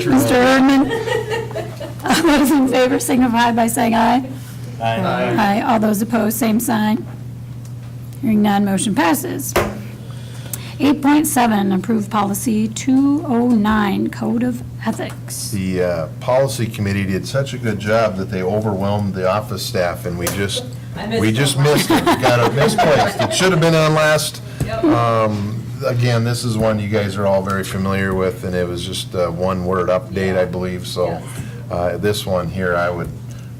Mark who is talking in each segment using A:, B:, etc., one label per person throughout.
A: Mr. Erdman? All those in favor signify by saying aye. Aye. All those opposed, same sign. Hearing none, motion passes. 8.7, approve policy 209, Code of Ethics.
B: The uh, policy committee did such a good job that they overwhelmed the office staff, and we just,
C: I missed
B: we just
C: one.
B: missed it, We got it misplaced. It should have been on last. Um, Again, this is one you guys are all very familiar with, and it was just a one-word update, I believe, so uh, this one here, I would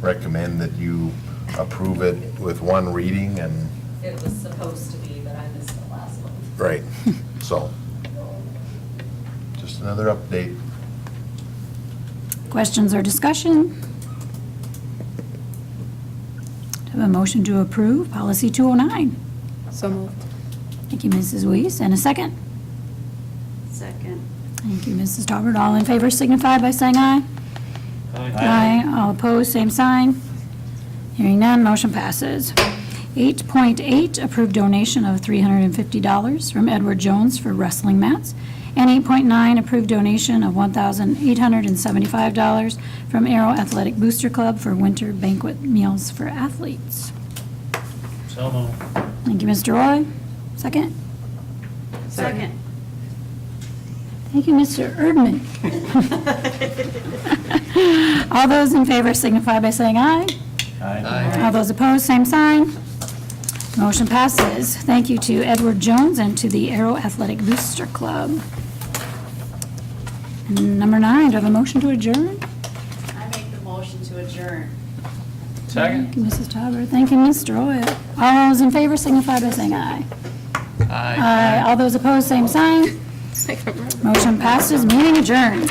B: recommend that you approve it with one reading and,
C: It was supposed to be, but I missed the last one.
B: right, so. Just another update.
A: Questions or discussion? Do I Have a motion to approve policy 209.
D: So moved.
A: Thank you, Mrs. Weiss, and a second.
E: Second.
A: Thank you, Mrs. Talbert. All in favor signify by saying aye. Aye. All opposed, same sign. Hearing none, motion passes. 8.8, approved donation of $350 from Edward Jones for wrestling mats. And 8.9, approved donation of $1,875 from Aero Athletic Booster Club for winter banquet meals for athletes.
F: So moved.
A: Thank you, Mr. Roy. Second.
E: Second.
A: Thank you, Mr. Erdman. All those in favor signify by saying aye. All those opposed, same sign. Motion passes. Thank you to Edward Jones and to the Aero Athletic Booster Club. Number nine, do I have a motion to adjourn?
E: I make the motion to adjourn.
F: Second?
A: Thank you, Mrs. Tauber. Thank you, Mr. Roy. All those in favor signify by saying aye. Aye. All those opposed, same sign. Motion passes, meeting adjourned.